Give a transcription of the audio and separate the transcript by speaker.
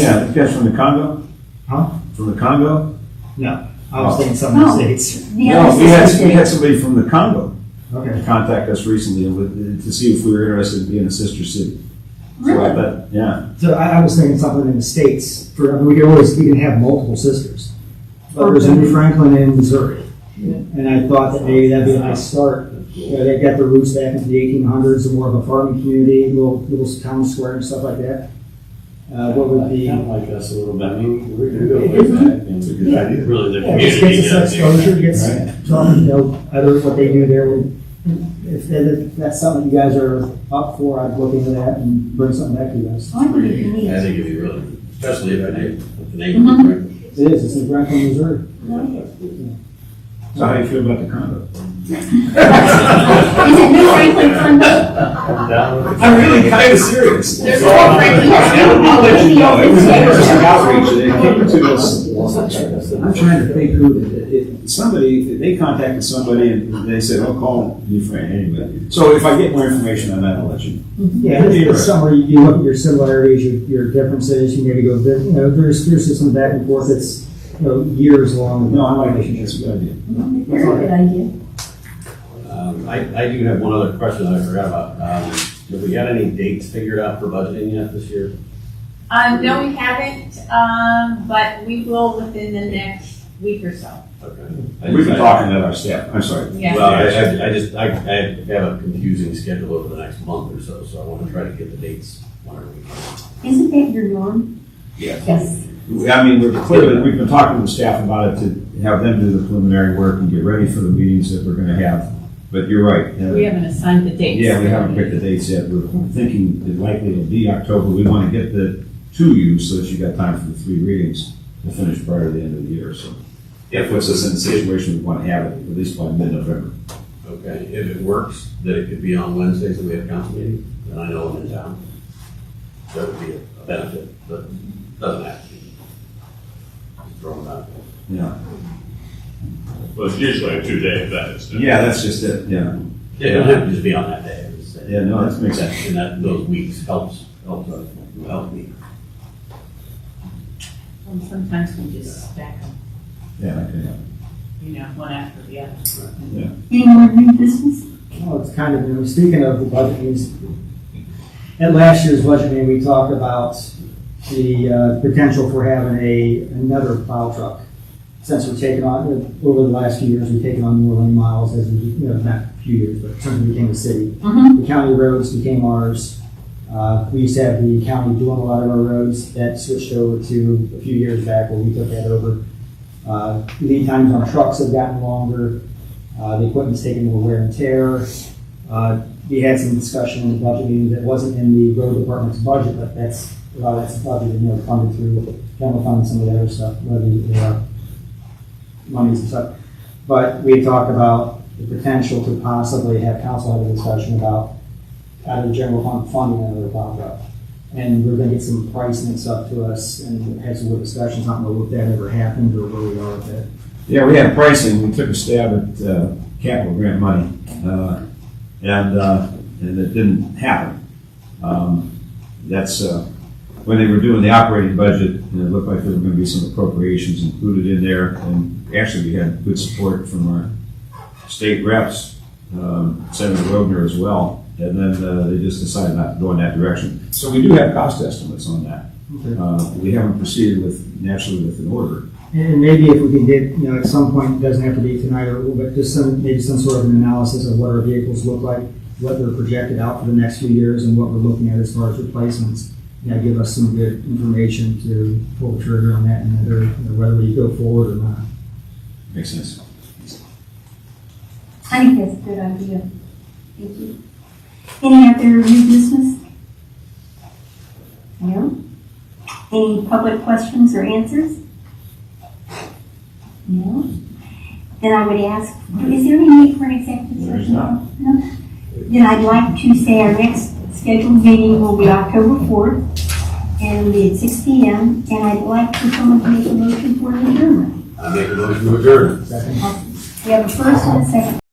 Speaker 1: Yeah, this guy's from the Congo?
Speaker 2: Huh?
Speaker 1: From the Congo?
Speaker 2: No, I was thinking something
Speaker 3: Oh.
Speaker 2: states.
Speaker 1: No, we had, we had somebody from the Congo
Speaker 2: Okay.
Speaker 1: contact us recently with, to see if we were interested in being a sister city. So I
Speaker 3: Really?
Speaker 1: bet- Yeah,
Speaker 2: So I, I was thinking something in the states. For I mean, we could always we can have multiple sisters. But there's a New Franklin in Missouri, and I thought that maybe that'd be a nice start. You know, they got their roots back into the 1800s, and more of a farming community, little little town square and stuff like that. Uh, what would be
Speaker 4: Kind of like us a little bit, I mean, we're gonna go way back. It's a
Speaker 2: good
Speaker 4: idea. Really, the
Speaker 2: Yeah, it
Speaker 4: community.
Speaker 2: just gets us
Speaker 4: down there.
Speaker 2: exposure, gets some, you know, other, what they do there. would- If that- if that's something you guys are up for, I'd look into that and bring something back to you guys.
Speaker 3: I think it'd be
Speaker 4: I
Speaker 3: neat.
Speaker 4: think it'd be really, especially if the neighbor, if the neighbor.
Speaker 2: It is, it's in Franklin, Missouri.
Speaker 1: so how do you feel about the Congo?
Speaker 3: Is it New Franklin Congo?
Speaker 4: I'm down with it.
Speaker 1: kind of serious.
Speaker 3: There's a lot of Franklin, yes,
Speaker 1: It
Speaker 3: New
Speaker 1: was an
Speaker 3: Franklin.
Speaker 1: outreach, they came to us. I'm trying to think who, it- it- somebody, they contacted somebody and they said, oh, call New Fran, anyway. So if I get more information on that, I'll let you know.
Speaker 2: Yeah, it's it's somewhere you- you look at your similarities, your, your differences, you maybe go, you know, there's, there's just some back and forth that's, you know, years long.
Speaker 1: No, I like relationships, good idea.
Speaker 3: Very good idea.
Speaker 4: Um, I, I do have one other question that I forgot about. Um, have we got any dates figured out for budgeting yet this year?
Speaker 5: Um, no, we haven't, um, but we will within the next week or so.
Speaker 4: Okay.
Speaker 1: We've been talking at our staff, I'm sorry.
Speaker 5: Yeah,
Speaker 4: Well, I, I, I just, I, I have a confusing schedule over the next month or so, so I wanna try to get the dates whenever we can.
Speaker 3: Isn't that your norm?
Speaker 4: Yes.
Speaker 3: Yes.
Speaker 1: I mean, we're clearly, we've been talking to the staff about it to have them do the preliminary work and get ready for the meetings that we're gonna have. But you're right. uh,
Speaker 5: we haven't assigned the dates.
Speaker 1: Yeah, we haven't picked the dates yet. We're thinking it likely will be October. We wanna get the to you so that you got time for the three readings to finish prior to the end of the year, so. That puts us in a situation we wanna have it at least by mid-November.
Speaker 4: Okay, if it works, that it could be on Wednesdays that we have council meeting, then I know I'm in town. That would be a benefit, but doesn't have to be. Just throwing that. out there.
Speaker 1: Yeah.
Speaker 6: Well, it's usually a two-day event, isn't it?
Speaker 1: Yeah, that's just it, yeah.
Speaker 4: Yeah, it don't have to just be on that day. It's, uh,
Speaker 1: Yeah, no, that makes sense.
Speaker 4: And that, those weeks helps, helps us, help me.
Speaker 5: And sometimes we just stack them,
Speaker 1: Yeah, okay.
Speaker 5: you know, one after the other.
Speaker 3: Any more new business?
Speaker 2: Well, it's kind of, you know, speaking of the budget meetings, at last year's budget meeting, we talked about the uh, potential for having a, another plow truck. Since we're taking on, over the last few years, we've taken on more lane miles as, we- you know, not a few years, but since we became a city.
Speaker 3: Mhm.
Speaker 2: The county roads became ours. Uh, We used to have the county doing a lot of our roads. That switched over to a few years back where we took that over. Uh, Lead times on trucks have gotten longer. Uh, The equipment's taken more wear and tear. Uh, We had some discussion in the budget meeting that wasn't in the road department's budget, but that's, a lot of that's budgeted, you know, funded through general fund and some of the other stuff, levy, uh, monies and stuff. But we talked about the potential to possibly have council have a discussion about out of the general fund funding another plow truck. And we're gonna get some pricing and stuff to us and have some good discussions, not know if that ever happened or where we are with it.
Speaker 1: Yeah, we had pricing, we took a stab at uh, capital grant money, uh, and, uh, and it didn't happen. Um, That's, uh, when they were doing the operating budget, and it looked like there were gonna be some appropriations included in there, and actually, we had good support from our state reps, um, Senator Rogner as well, and then uh, they just decided not to go in that direction. So we do have cost estimates on that. Uh, We haven't proceeded with, naturally with an order,
Speaker 2: And maybe if we can get, you know, at some point, it doesn't have to be tonight or, but just some, maybe some sort of an analysis of what our vehicles look like, what they're projected out for the next few years and what we're looking at as far as replacements. You know, give us some good information to pull the trigger on that and whether, you know, whether we go forward or not.
Speaker 1: makes sense.
Speaker 3: I think that's a good idea. Thank you. Any other new business? No? Any public questions or answers? No? Then I would ask, is there any need for an executive
Speaker 1: There is
Speaker 3: session?
Speaker 1: not.
Speaker 3: No? Then I'd like to say our next scheduled meeting will be October fourth, and it'll be at six P M. And I'd like for someone to make a motion for an adjournment.
Speaker 4: I make a motion to adjourn.
Speaker 2: Second?
Speaker 3: We have a first and a second.